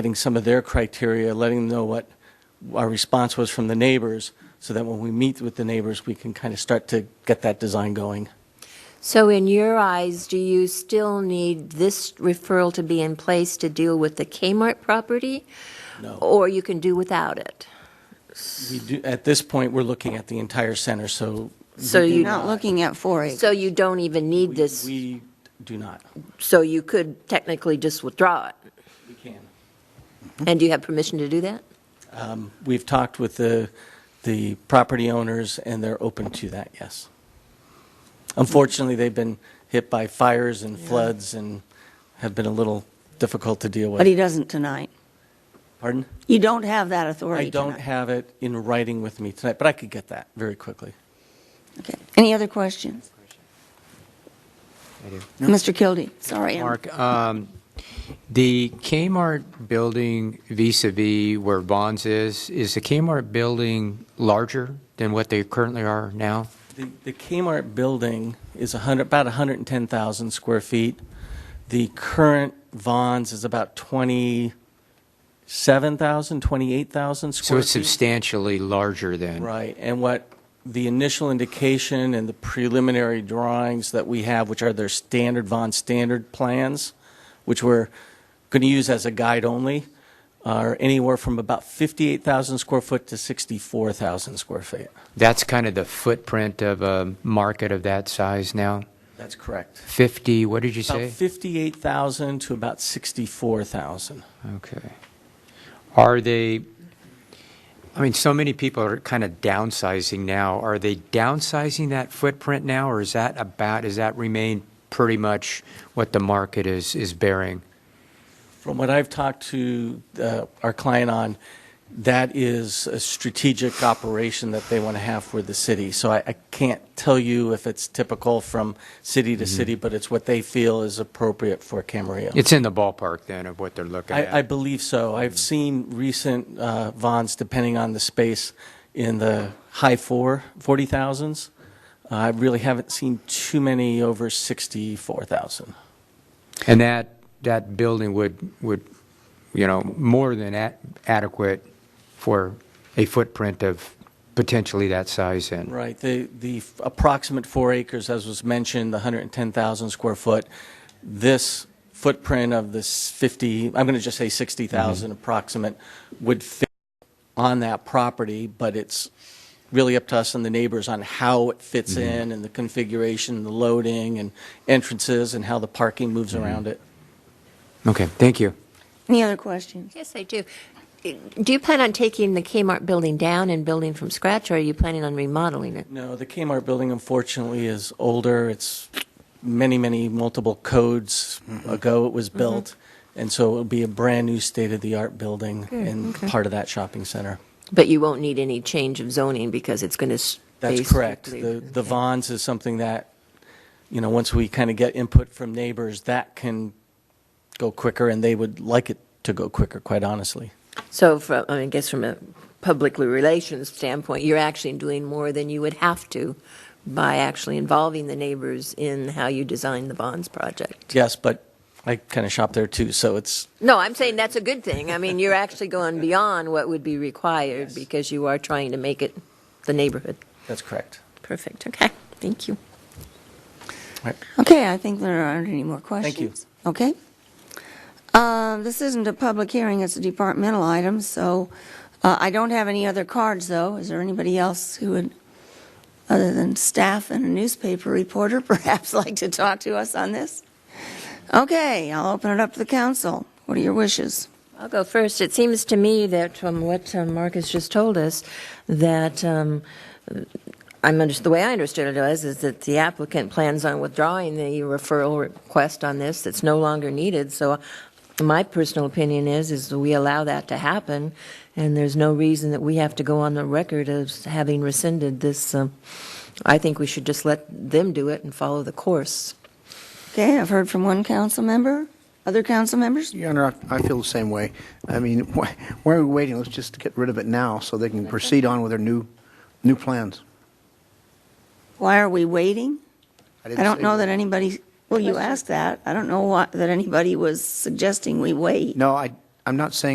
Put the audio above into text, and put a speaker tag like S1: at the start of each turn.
S1: getting some of their criteria, letting them know what our response was from the neighbors, so that when we meet with the neighbors, we can kind of start to get that design going.
S2: So in your eyes, do you still need this referral to be in place to deal with the Kmart property?
S1: No,
S2: Or you can do without it?
S1: we do, at this point, we're looking at the entire center, so. we
S2: So
S1: do
S2: you-
S1: not-
S3: Not looking at four acres.
S2: So you don't even need this,
S1: We do not.
S2: so you could technically just withdraw it?
S1: We can.
S2: And do you have permission to do that?
S1: We've talked with the, the property owners, and they're open to that, yes. Unfortunately, they've been hit by fires and floods and have been a little difficult to deal
S3: But he
S1: with.
S3: doesn't tonight.
S1: Pardon?
S3: You don't have that authority
S1: I don't
S3: tonight.
S1: have it in writing with me tonight, but I could get that very quickly.
S3: Okay. Any other questions?
S4: I do.
S3: Mr. Kildee, sorry. I'm-
S4: Mark, um, the Kmart building vis-à-vis where Vons is, is the Kmart building larger than what they currently are now?
S1: The the Kmart building is 100, about 110,000 square feet. The current Vons is about 27,000, 28,000
S4: So
S1: square
S4: it's
S1: feet.
S4: substantially larger than?
S1: Right, and what the initial indication and the preliminary drawings that we have, which are their standard Von Standard plans, which we're going to use as a guide only, are anywhere from about 58,000 square foot to 64,000 square feet.
S4: That's kind of the footprint of a market of that size now?
S1: That's correct.
S4: 50, what did you
S1: About
S4: say?
S1: 58,000 to about 64,000.
S4: Okay. Are they, I mean, so many people are kind of downsizing now. Are they downsizing that footprint now, or is that about, does that remain pretty much what the market is, is bearing?
S1: From what I've talked to uh, our client on, that is a strategic operation that they want to have for the city. So I I can't tell you if it's typical from city to city, but it's what they feel is appropriate for Camarillo.
S4: It's in the ballpark then of what they're looking at.
S1: I, I believe so. I've seen recent uh, Vons, depending on the space, in the high four, 40,000s. Uh, I really haven't seen too many over 64,000.
S4: And that, that building would, would, you know, more than a- adequate for a footprint of potentially that size then?
S1: Right, the, the f- approximate four acres, as was mentioned, the 110,000 square foot, this footprint of this 50, I'm going to just say 60,000 approximate, would fit on that property, but it's really up to us and the neighbors on how it fits in and the configuration, the loading and entrances and how the parking moves around it.
S4: Okay, thank you.
S3: Any other questions?
S2: Yes, I do. Do you plan on taking the Kmart building down and building from scratch, or are you planning on remodeling it?
S1: No, the Kmart building unfortunately is older. It's many, many multiple codes ago it was built. And so it'll be a brand-new state-of-the-art building and part of that shopping center.
S2: But you won't need any change of zoning because it's going to.
S1: That's correct. The the Vons is something that, you know, once we kind of get input from neighbors, that can go quicker, and they would like it to go quicker, quite honestly.
S2: So from, I guess from a public relations standpoint, you're actually doing more than you would have to by actually involving the neighbors in how you design the bonds project.
S1: Yes, but I kind of shop there too, so it's,
S2: No, I'm saying that's a good thing. I mean, you're actually going beyond what would be required because you are trying to make it the neighborhood.
S1: that's correct.
S2: Perfect, okay, thank you.
S3: Okay, I think there aren't any more questions.
S1: you.
S3: Okay. Uh, This isn't a public hearing, it's a departmental item, so uh, I don't have any other cards, though. Is there anybody else who would, other than staff and a newspaper reporter, perhaps like to talk to us on this? Okay, I'll open it up to the council. What are your wishes?
S2: I'll go first. It seems to me that from what um, Mark has just told us, that um, I'm under, the way I understood it was is that the applicant plans on withdrawing the referral request on this. That's no longer needed. So, my personal opinion is is we allow that to happen, and there's no reason that we have to go on the record as having rescinded this. Um, I think we should just let them do it and follow the course.
S3: Okay, I've heard from one council member. Other council members?
S5: Your Honor, I I feel the same way. I mean, why why are we waiting? Let's just get rid of it now so they can proceed on with their new, new plans.
S3: Why are we waiting?
S5: didn't
S3: I don't
S5: say
S3: know
S5: we-
S3: that anybody, well, you asked that. I don't know what, that anybody was suggesting we wait.
S5: No, I, I'm not saying